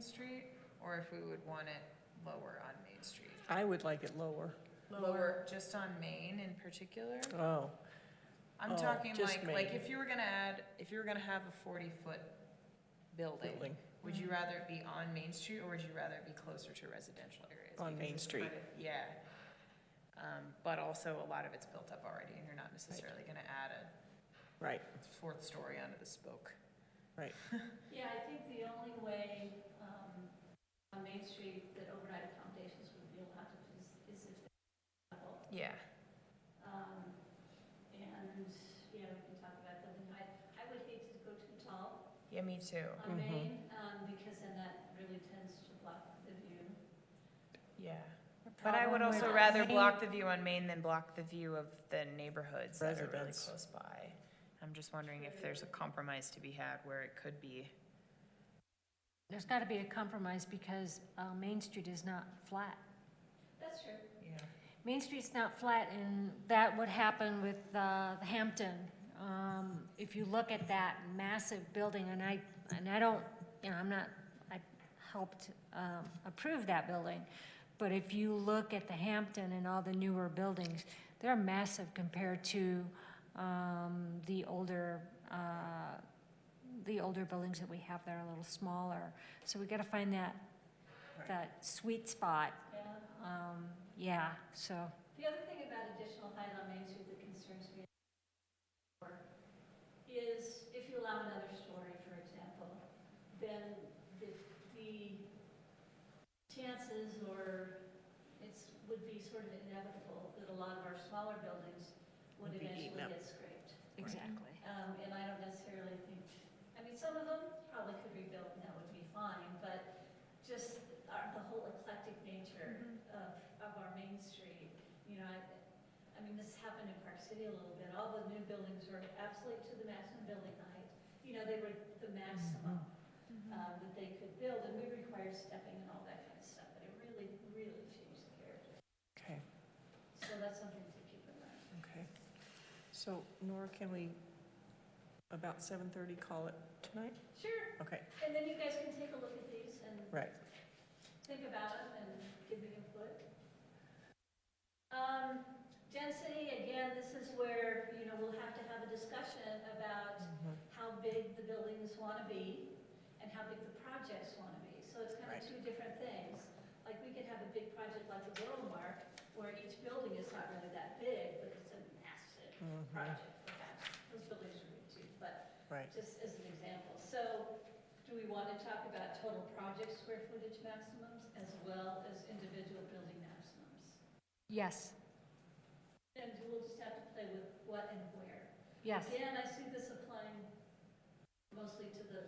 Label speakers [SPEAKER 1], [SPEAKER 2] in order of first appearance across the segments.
[SPEAKER 1] Street, or if we would want it lower on Main Street.
[SPEAKER 2] I would like it lower.
[SPEAKER 1] Lower, just on Main in particular.
[SPEAKER 2] Oh,
[SPEAKER 1] I'm
[SPEAKER 2] Oh,
[SPEAKER 1] talking
[SPEAKER 2] just
[SPEAKER 1] like, like
[SPEAKER 2] Main.
[SPEAKER 1] if you were gonna add, if you were gonna have a forty-foot building,
[SPEAKER 2] building
[SPEAKER 1] would you rather it be on Main Street, or would you rather it be closer to residential areas?
[SPEAKER 2] on
[SPEAKER 1] Because
[SPEAKER 2] Main
[SPEAKER 1] it's
[SPEAKER 2] Street.
[SPEAKER 1] kind of- Yeah. Um, but also a lot of it's built up already, and you're not necessarily gonna add a
[SPEAKER 2] Right,
[SPEAKER 1] fourth story onto the spoke.
[SPEAKER 3] Yeah, I think the only way um, on Main Street that overnight accommodations would be allowed to is is if they're level.
[SPEAKER 1] Yeah.
[SPEAKER 3] Um, And, you know, we can talk about building height. I would hate to go too tall
[SPEAKER 1] Yeah, me too.
[SPEAKER 3] on
[SPEAKER 2] Mhm.
[SPEAKER 3] Main um, because then that really tends to block the view.
[SPEAKER 1] Yeah.
[SPEAKER 4] But I would also
[SPEAKER 3] with
[SPEAKER 4] rather
[SPEAKER 3] Maine-
[SPEAKER 4] block the view on Main than block the view of the neighborhoods that are really
[SPEAKER 2] Residents.
[SPEAKER 4] close by. I'm just wondering if there's a compromise to be had where it could be,
[SPEAKER 5] There's got to be a compromise because uh, Main Street is not flat.
[SPEAKER 3] That's true.
[SPEAKER 1] Yeah.
[SPEAKER 5] Main Street's not flat, and that would happen with uh, Hampton. Um, If you look at that massive building, and I, and I don't, you know, I'm not, I helped um, approve that building, but if you look at the Hampton and all the newer buildings, they're massive compared to um, the older, uh, the older buildings that we have that are a little smaller. So we got to find that,
[SPEAKER 2] Right.
[SPEAKER 5] that sweet spot
[SPEAKER 3] Yeah.
[SPEAKER 5] um, yeah, so,
[SPEAKER 3] The other thing about additional height on Main Street that concerns me is if you allow another story, for example, then the, the chances or it's, would be sort of inevitable that a lot of our smaller buildings would
[SPEAKER 2] Would be
[SPEAKER 3] eventually
[SPEAKER 2] eaten up.
[SPEAKER 3] get scraped.
[SPEAKER 5] exactly.
[SPEAKER 3] Um, and I don't necessarily think, I mean, some of them probably could be built and that would be fine, but just our, the whole eclectic nature of, of our Main Street, you know, I, I mean, this happened in Park City a little bit, all the new buildings were absolutely to the maximum building height. You know, they were the maximum, um, that they could build, and we require stepping and all that kind of stuff, but it really, really changed the character.
[SPEAKER 2] okay,
[SPEAKER 3] So that's something to keep in mind.
[SPEAKER 2] okay. So Nora, can we, about 7:30, call it tonight?
[SPEAKER 3] Sure,
[SPEAKER 2] Okay,
[SPEAKER 3] and then you guys can take a look at these and
[SPEAKER 2] right.
[SPEAKER 3] think about it and give me input. Um, density, again, this is where, you know, we'll have to have a discussion about
[SPEAKER 2] Mhm.
[SPEAKER 3] how big the buildings want to be and how big the projects want to be. So it's kind of
[SPEAKER 2] Right.
[SPEAKER 3] two different things. Like, we could have a big project like the Borough Mark, where each building is not really that big, but it's a massive
[SPEAKER 2] Mhm.
[SPEAKER 3] project, perhaps. Those buildings are big too, but
[SPEAKER 2] Right,
[SPEAKER 3] just as an example. So do we want to talk about total project square footage maximums as well as individual building maximums?
[SPEAKER 5] Yes,
[SPEAKER 3] And we'll just have to play with what and where.
[SPEAKER 5] yes.
[SPEAKER 3] Again, I see this applying mostly to the.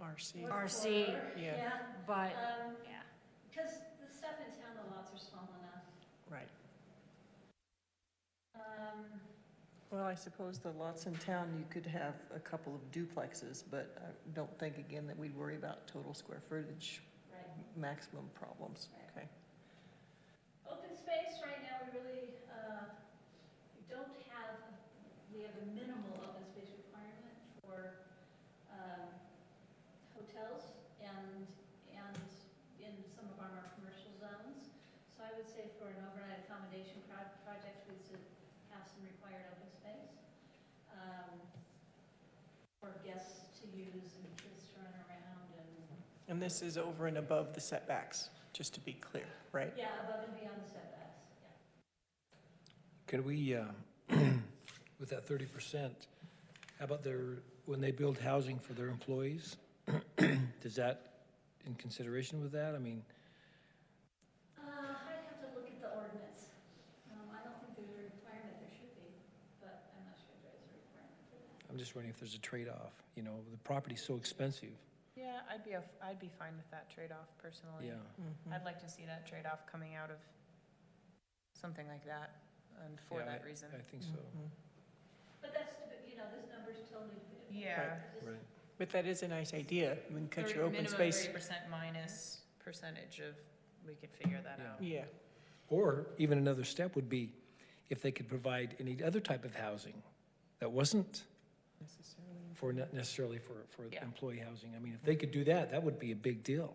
[SPEAKER 2] RC,
[SPEAKER 3] fourth
[SPEAKER 5] RC,
[SPEAKER 3] floor.
[SPEAKER 2] yeah.
[SPEAKER 5] But,
[SPEAKER 3] Yeah,
[SPEAKER 5] yeah,
[SPEAKER 3] because Um, the stuff in town, the lots are small enough.
[SPEAKER 2] right.
[SPEAKER 3] Um,
[SPEAKER 2] Well, I suppose the lots in town, you could have a couple of duplexes, but I don't think again that we'd worry about total square footage
[SPEAKER 3] Right.
[SPEAKER 2] maximum problems,
[SPEAKER 3] Right.
[SPEAKER 2] okay?
[SPEAKER 3] Open space, right now, we really, uh, we don't have, we have a minimal open space requirement for um, hotels and, and in some of our more commercial zones. So I would say for an overnight accommodation pro- project, we should have some required open space um, for guests to use and kids to run around and,
[SPEAKER 2] And this is over and above the setbacks, just to be clear, right?
[SPEAKER 3] yeah, above and beyond the setbacks, yeah.
[SPEAKER 6] Can we, uh, with that thirty percent, how about their, when they build housing for their employees? Does that, in consideration with that, I mean,
[SPEAKER 3] Uh, I'd have to look at the ordinance. Um, I don't think there's a requirement, there should be, but I'm not sure there is a requirement for that.
[SPEAKER 6] I'm just wondering if there's a trade-off, you know, the property's so expensive,
[SPEAKER 4] yeah, I'd be, a- I'd be fine with that trade-off personally.
[SPEAKER 6] yeah.
[SPEAKER 1] Mm-hmm.
[SPEAKER 2] Mhm.
[SPEAKER 4] I'd like to see that trade-off coming out of something like that, and for
[SPEAKER 6] Yeah,
[SPEAKER 4] that reason.
[SPEAKER 6] I think so,
[SPEAKER 2] Mhm.
[SPEAKER 3] But that's, deb- you know, this number's totally debatable.
[SPEAKER 4] Yeah.
[SPEAKER 3] I just-
[SPEAKER 6] right,
[SPEAKER 2] But that is a nice idea, I mean, cut your open
[SPEAKER 4] Minimum
[SPEAKER 2] space.
[SPEAKER 4] thirty percent minus percentage of, we could figure that
[SPEAKER 6] Yeah.
[SPEAKER 4] out.
[SPEAKER 2] Yeah,
[SPEAKER 6] or even another step would be if they could provide any other type of housing that wasn't
[SPEAKER 2] necessarily.
[SPEAKER 6] for, not necessarily for, for
[SPEAKER 4] Yeah.
[SPEAKER 6] employee housing, I mean, if they could do that, that would be a big deal.